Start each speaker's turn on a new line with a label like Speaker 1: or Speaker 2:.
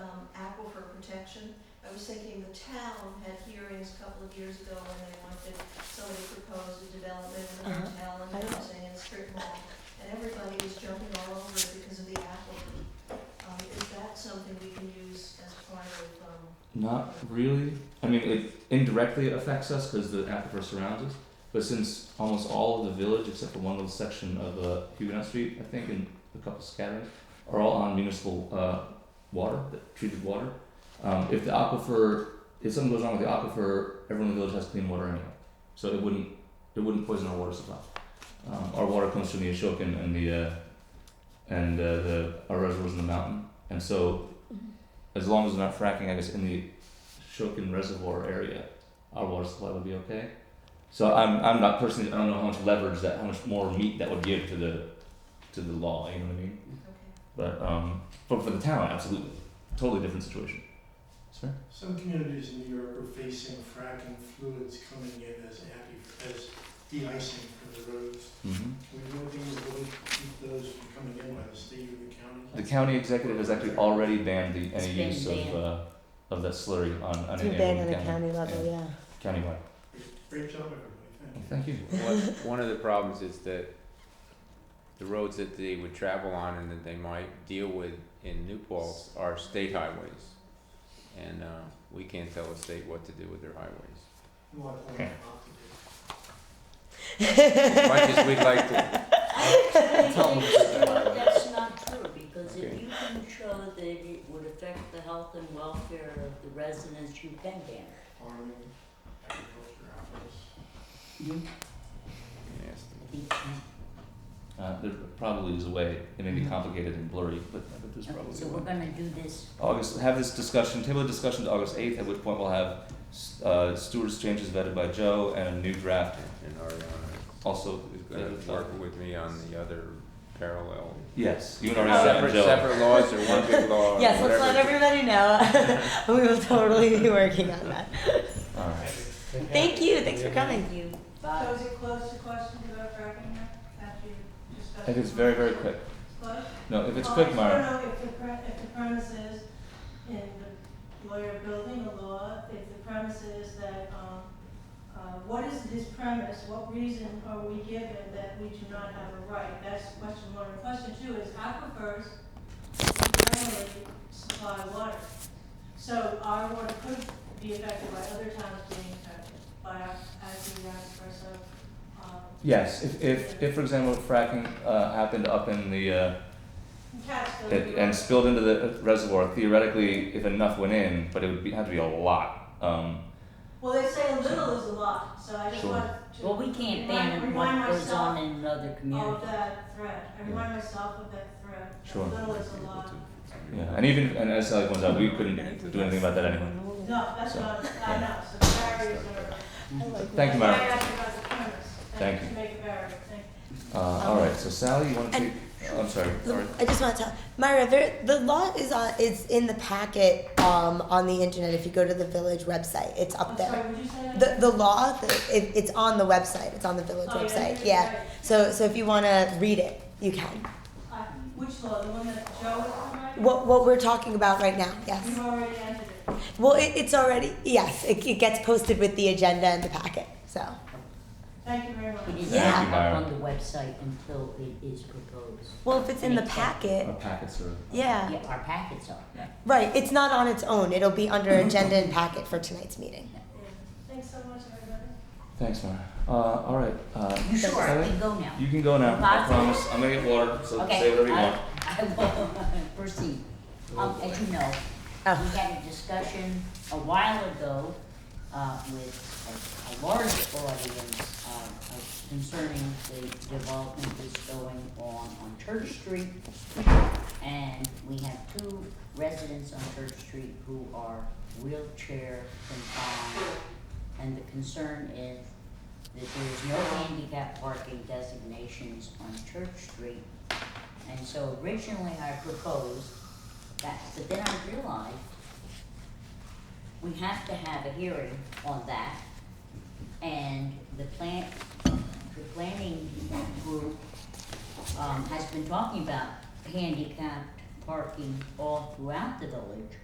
Speaker 1: um, action. I was thinking the town had hearings a couple of years ago when they wanted, somebody proposed a development in the
Speaker 2: Uh-huh.
Speaker 1: hotel
Speaker 2: I
Speaker 1: and
Speaker 2: know.
Speaker 1: housing and strip mall. And everybody was jumping all over it because of the applicant. Um, is that something we can use as part of, um,
Speaker 3: Not really. I mean, it indirectly affects us because the aquifer surrounds us. But since almost all of the village, except for one little section of uh, Huguenot Street, I think, and a couple scatterings, are all on municipal uh, water, the treated water. Um, if the aquifer, if something goes wrong with the aquifer, everyone in the village has clean water anyway, so it wouldn't, it wouldn't poison our water supply. Um, our water comes from the Ashokan and the, uh, and uh, the our reservoirs in the mountain, and so as long as we're not fracking, I guess, in the Shokin Reservoir area, our water supply would be okay. So I'm, I'm not personally, I don't know how much leverage that, how much more meat that would give to the, to the law, you know what I mean?
Speaker 1: okay?
Speaker 3: But, um, but for the town, absolutely, totally different situation. Sir?
Speaker 4: Some communities in New York are facing fracking fluids coming in as anti, as de-icing from the roads.
Speaker 3: Mm-hmm.
Speaker 4: We know things that would keep those from coming in by the state or the
Speaker 3: The
Speaker 4: county.
Speaker 3: county executive has actually already banned the,
Speaker 2: It's
Speaker 3: any
Speaker 2: been
Speaker 3: use of,
Speaker 2: banned.
Speaker 3: uh, of that slurry on, on
Speaker 2: It's
Speaker 3: any
Speaker 2: been
Speaker 3: area in
Speaker 2: banned on
Speaker 3: the
Speaker 2: the
Speaker 3: county,
Speaker 2: county level, yeah.
Speaker 3: countywide.
Speaker 4: Great job, everybody, thank you.
Speaker 3: Thank you.
Speaker 5: One, one of the problems is that the roads that they would travel on and that they might deal with in New Paltz are state highways. And, uh, we can't tell a state what to do with their highways.
Speaker 4: You want to
Speaker 3: Okay.
Speaker 4: off the grid.
Speaker 5: As much as we'd like to,
Speaker 6: Actually, that's not true, because if
Speaker 5: Okay.
Speaker 6: you can show that it would affect the health and welfare of the residents, you can ban it.
Speaker 4: farming, agriculture, apples.
Speaker 5: yes,
Speaker 6: You can.
Speaker 3: Uh, there probably is a way, it may be complicated and blurry, but, but there's probably a way.
Speaker 6: Okay, so we're gonna do this,
Speaker 3: August, have this discussion, table the discussion to August 8th, at which point we'll have uh, Stewart's changes vetted by Joe and a new draft
Speaker 5: and Ariana
Speaker 3: also.
Speaker 5: is gonna work with me on the other parallel.
Speaker 3: Yes, you and Ariana
Speaker 5: Oh, Separate,
Speaker 3: and Joe.
Speaker 5: separate laws or one big law, or
Speaker 2: Yes, let's let
Speaker 5: whatever.
Speaker 2: everybody know. we will totally be working on that.
Speaker 3: All right.
Speaker 2: Thank you. Thanks for coming.
Speaker 6: thank you,
Speaker 1: So
Speaker 6: bye.
Speaker 1: is it closed to questions about fracking now, after you discussed?
Speaker 3: If it's very, very quick.
Speaker 1: Closed?
Speaker 3: No, if it's
Speaker 1: Well,
Speaker 3: quick,
Speaker 1: I
Speaker 3: Mara.
Speaker 1: don't know if the pre- if the premise is in the lawyer building a law, if the premise is that, um, uh, what is this premise? What reason are we given that we do not have a right? That's question one. And question two is aquifers generally supply water. So our water could be affected by other towns being affected by acting aquifer, so, um,
Speaker 3: Yes, if, if, if for example, fracking uh, happened up in the, uh,
Speaker 1: Catskills.
Speaker 3: it, and spilled into the reservoir, theoretically, if enough went in, but it would be, have to be a lot. Um,
Speaker 1: Well, they say a little is a lot, so I just
Speaker 3: Sure.
Speaker 1: want to.
Speaker 6: Well, we can't ban
Speaker 1: remind-
Speaker 6: what
Speaker 1: remind
Speaker 6: goes on in another
Speaker 1: myself
Speaker 6: community.
Speaker 1: Of Oh, that threat, I remind myself of that threat,
Speaker 3: Sure.
Speaker 1: a little is a lot.
Speaker 3: yeah, and even, and as Sally points out, we couldn't do anything about that anyway.
Speaker 1: No, that's
Speaker 3: So,
Speaker 1: not, I know, so the barriers are.
Speaker 3: Thank you, Mara.
Speaker 1: I asked about the premise,
Speaker 3: Thank
Speaker 1: and
Speaker 3: you.
Speaker 1: to make a barrier, thank you.
Speaker 3: Uh, all right, so Sally, you want to
Speaker 2: And-
Speaker 3: take, I'm sorry, sorry.
Speaker 2: I just want to tell Myra, there, the law is on. It's in the packet um, on the internet. If you go to the village website, it's up
Speaker 1: I'm
Speaker 2: there.
Speaker 1: sorry, would you say that?
Speaker 2: The the law, the, it, it's on the website. It's on the village
Speaker 1: Oh,
Speaker 2: website.
Speaker 1: you're
Speaker 2: Yeah.
Speaker 1: right.
Speaker 2: So so if you want to read it, you can.
Speaker 1: Uh, Which law, the one that Joe was on, right?
Speaker 2: What what we're talking about right now?
Speaker 1: You've
Speaker 2: Yes.
Speaker 1: already entered it.
Speaker 2: Well, it, it's already yes. It, it gets posted with the agenda and the packet. So
Speaker 1: Thank you very much.
Speaker 6: It is
Speaker 2: Yeah.
Speaker 6: not
Speaker 3: Thank you, Myra.
Speaker 6: up on the website until it is proposed.
Speaker 2: well, if it's in the
Speaker 6: Makes sense.
Speaker 3: A
Speaker 2: packet,
Speaker 3: packet sort of.
Speaker 2: yeah.
Speaker 6: Yeah, our packets are, right.
Speaker 2: Right, it's not on its own. It'll be under agenda and packet for tonight's meeting.
Speaker 1: Yeah. Thanks so much, everybody.
Speaker 3: Thanks, Mara. Uh, all right. Uh,
Speaker 6: You sure, I
Speaker 3: Sally,
Speaker 6: can go now.
Speaker 3: you can go now. I
Speaker 6: Bye.
Speaker 3: promise. I'm gonna get water, so
Speaker 6: Okay,
Speaker 3: say whatever you want.
Speaker 6: I, I will proceed. Um, as you know,
Speaker 2: Oh,
Speaker 6: we had a discussion a while ago, uh, with a, a large audience, uh, of- concerning the development that's going on on Church Street. And we have two residents on Church Street who are wheelchair confined. And the concern is that there is no handicap parking designations on Church Street. And so originally I proposed that, but then I realized we have to have a hearing on that. And the plan, the planning group, um, has been talking about handicapped parking all throughout the village.